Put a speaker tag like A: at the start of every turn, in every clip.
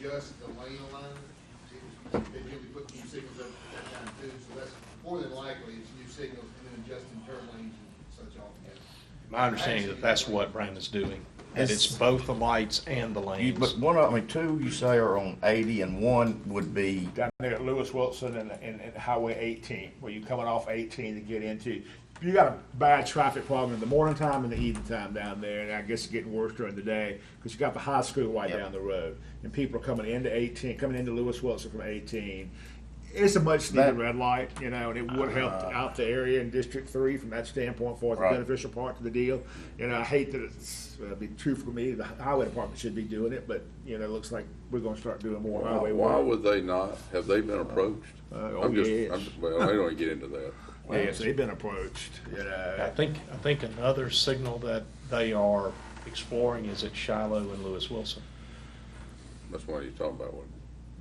A: just the lane alignment. They usually put new signals up at that time too, so that's more than likely, it's new signals and then adjusting turn lanes and such altogether.
B: My understanding is that that's what Brandon's doing, that it's both the lights and the
C: You,
B: lanes.
C: but one, of- I mean, two you say are on eighty and one would be,
D: down there at Lewis Wilson and, and, and Highway 18, where you're coming off 18 to get into. You got a bad traffic problem in the morning time and the evening time down there, and I guess it's getting worse during the day because you got the high school right
C: Yep.
D: down the road, and people are coming into 18, coming into Lewis Wilson from 18. It's a much needed
C: That- Uh.
D: red light, you know, and it would help out the area in District Three from that standpoint for the
C: Right.
D: beneficial part to the deal. You know, I hate that it's, uh, be true for me, the highway department should be doing it, but, you know, it looks like we're gonna start doing more
E: Why
D: highway
E: why
D: work.
E: would they not? Have they been approached?
D: Uh,
E: I'm
D: oh,
E: just-
D: yes.
E: I'm just- Well, I don't wanna get into that.
D: Yes, they've been approached, you
B: I
D: know.
B: think, I think another signal that they are exploring is at Shiloh and Lewis Wilson.
E: That's why you're talking about one.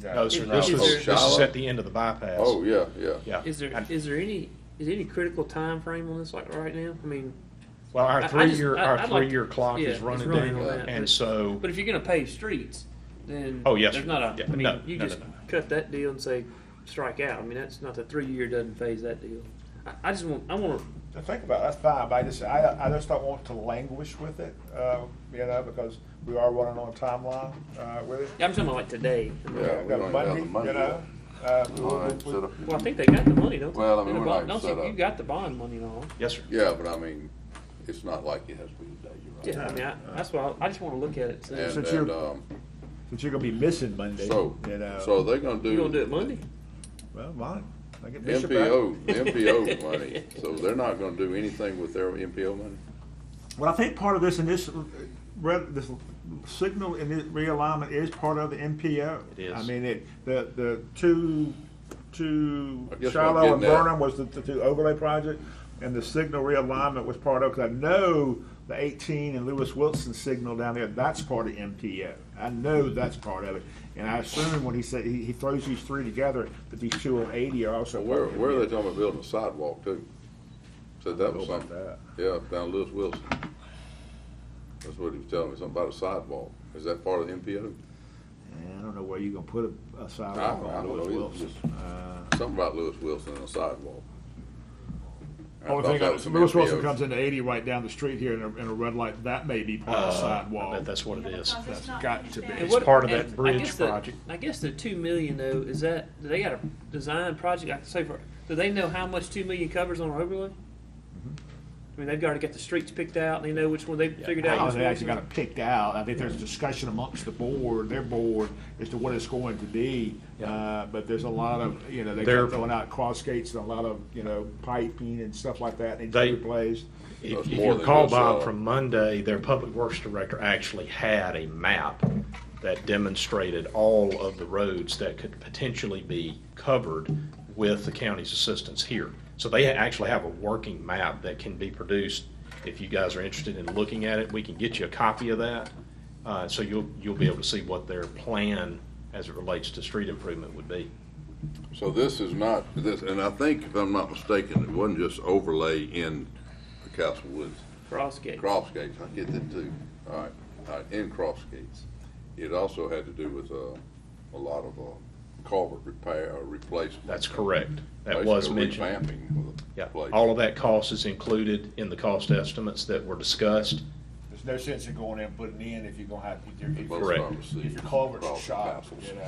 B: No, sir, this
F: Is
B: was,
F: there-
B: this is at the end of the bypass.
E: Oh, yeah, yeah.
B: Yeah.
F: Is there, is there any, is there any critical time frame on this, like right now? I mean,
B: Well,
F: I- I
B: our
F: just-
B: three-year,
F: I-
B: our
F: I'd like
B: three-year
F: to-
B: clock
F: yeah,
B: is
F: it's
B: running
F: running
B: down,
F: on that,
B: and
F: but-
B: so,
F: but if you're gonna pave streets, then.
B: Oh, yes,
F: There's
B: sir.
F: not a,
B: Yeah,
F: I mean,
B: no,
F: you
B: no,
F: just
B: no, no.
F: cut that deal and say, strike out. I mean, that's not, the three-year doesn't phase that deal. I, I just want, I wanna,
D: I think about, it, that's fine, but I just, I, I just don't want to languish with it, uh, you know, because we are running on a timeline, uh, with it.
F: I'm talking about like today.
E: Yeah,
D: We've
E: we don't
D: got
E: have
D: Monday,
E: the
D: you
E: money
D: know,
E: yet.
D: uh,
E: All right,
D: we- we-
E: set up.
F: Well, I think they got the money, don't they?
E: Well, I mean,
F: And the
E: we're
F: bond-
E: not
F: don't
E: set
F: they-
E: up.
F: You got the bond money and all.
B: yes, sir.
E: Yeah, but I mean, it's not like it has to be today, you're
F: Yeah, I
E: right.
F: mean, I, that's why, I- I just wanna look at it, so.
E: And,
D: Since
E: and,
D: you're-
E: um,
D: But you're gonna be missing Monday,
E: so,
D: you know.
E: so they're gonna do.
F: You gonna do it Monday?
D: Well, mine, I get Bishop out.
E: MPO, MPO money. So they're not gonna do anything with their MPO money?
D: Well, I think part of this initial, re- this signal and it- realignment is part of the NPO.
B: It is.
D: I mean, it, the, the two, two,
E: I guess what I'm
D: Shiloh and
E: getting at-
D: Burnham was the, the two overlay project, and the signal realignment was part of, cause I know the eighteen and Lewis Wilson signal down there, that's part of MPO. I know that's part of it, and I assume when he said, he, he throws these three together, that these two on eighty are also.
E: So where,
D: part of
E: where are they
D: MPO.
E: talking about building a sidewalk too? Said that was
D: Know about
E: something.
D: that.
E: Yeah, down Lewis Wilson. That's what he was telling me, something about a sidewalk. Is that part of the MPO?
D: And I don't know where you're gonna put a, a
E: I
D: sidewalk
E: don't- I
D: on
E: don't
D: Lewis
E: know.
D: Wilson.
E: It's
D: Uh,
E: Something about Lewis Wilson and a sidewalk. I
D: Only
E: thought
D: thing,
E: that
D: I-
E: was some
D: Lewis Wilson
E: MPOs.
D: comes into eighty right down the street here in a, in a red light, that may be part of the
B: Uh, I
D: sidewalk.
B: bet that's what it is.
G: Because
D: That's
G: it's not
D: got to be.
G: finished
F: And
G: down.
B: It's
F: what-
B: part of
F: and
B: that
F: I
B: bridge
F: guess the-
B: project.
F: I guess the two million though, is that, do they got a design project, I can say for, do they know how much two million covers on an overlay?
B: Mm-hmm.
F: I mean, they've already got the streets picked out, and they know which one they figured out.
D: How
F: which
D: Oh, they
F: one-
D: actually got it picked out, I think there's a discussion amongst the board, their board, as to what it's going to be. Uh, but there's a lot of, you know, they
B: They're-
D: kept throwing out cross gates and a lot of, you know, piping and stuff like that, needs to
B: They-
D: be replaced.
B: If
E: That's
B: if
E: more
B: you
E: than
B: recall,
E: just, uh,
B: Bob, from Monday, their public works director actually had a map that demonstrated all of the roads that could potentially be covered with the county's assistance here. So they actually have a working map that can be produced. If you guys are interested in looking at it, we can get you a copy of that. Uh, so you'll, you'll be able to see what their plan as it relates to street improvement would be.
E: So this is not, this, and I think if I'm not mistaken, it wasn't just overlay in Castle Woods.
F: Cross gate.
E: Cross gates, I get that too. All right, all right, in cross gates. It also had to do with, uh, a lot of, uh, culvert repair or replacement.
B: That's correct. That was
E: Basically
B: mentioned.
E: Revamping of the
B: Yeah,
E: place.
B: all of that cost is included in the cost estimates that were discussed.
D: There's no sense in going in and putting in if you're gonna have, if your, if
E: Both
D: your-
B: Correct.
E: services
D: if your culvert's
E: across the
D: shot,
E: castles.
D: you know,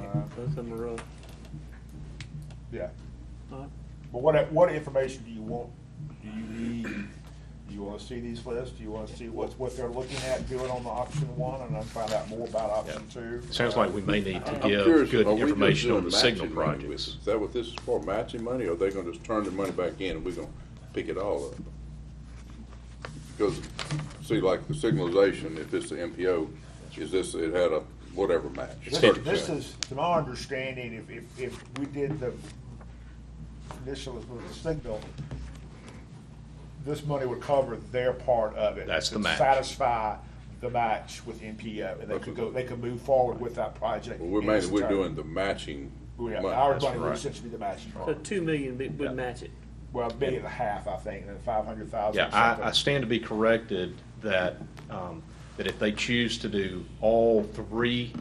D: uh,
F: Both of them are rough.
D: yeah.
F: All right.
D: But what, what information do you want, do you need? Do you wanna see these lists? Do you wanna see what's, what they're looking at doing on the option one and then find out more about option two?
B: Sounds like we may need to
E: I'm
B: give
E: curious,
B: good
E: are we just
B: information on
E: doing
B: the signal
E: matching money with
B: projects.
E: it? Is that what this is for, matching money, or are they gonna just turn the money back in and we're gonna pick it all up? Because, see, like the signalization, if it's the MPO, is this, it had a whatever match.
D: This- This
E: 30%.
D: is, to my understanding, if, if, if we did the initial with the signal, this money would cover their part of it.
B: That's the
D: to
B: match.
D: Satisfy the match with NPO, and they could go, they could move forward with that project.
E: Well, we're
D: in its
E: mainly, we're
D: entirety.
E: doing the matching.
D: Yeah,
E: money.
D: Our
B: That's
D: money would
B: right.
D: essentially be the matching.
F: So two million be- would match it.
D: Well, a billion and a half, I think, and then five hundred thousand.
B: Yeah, I, I stand to be corrected that, um, that if they choose to do all three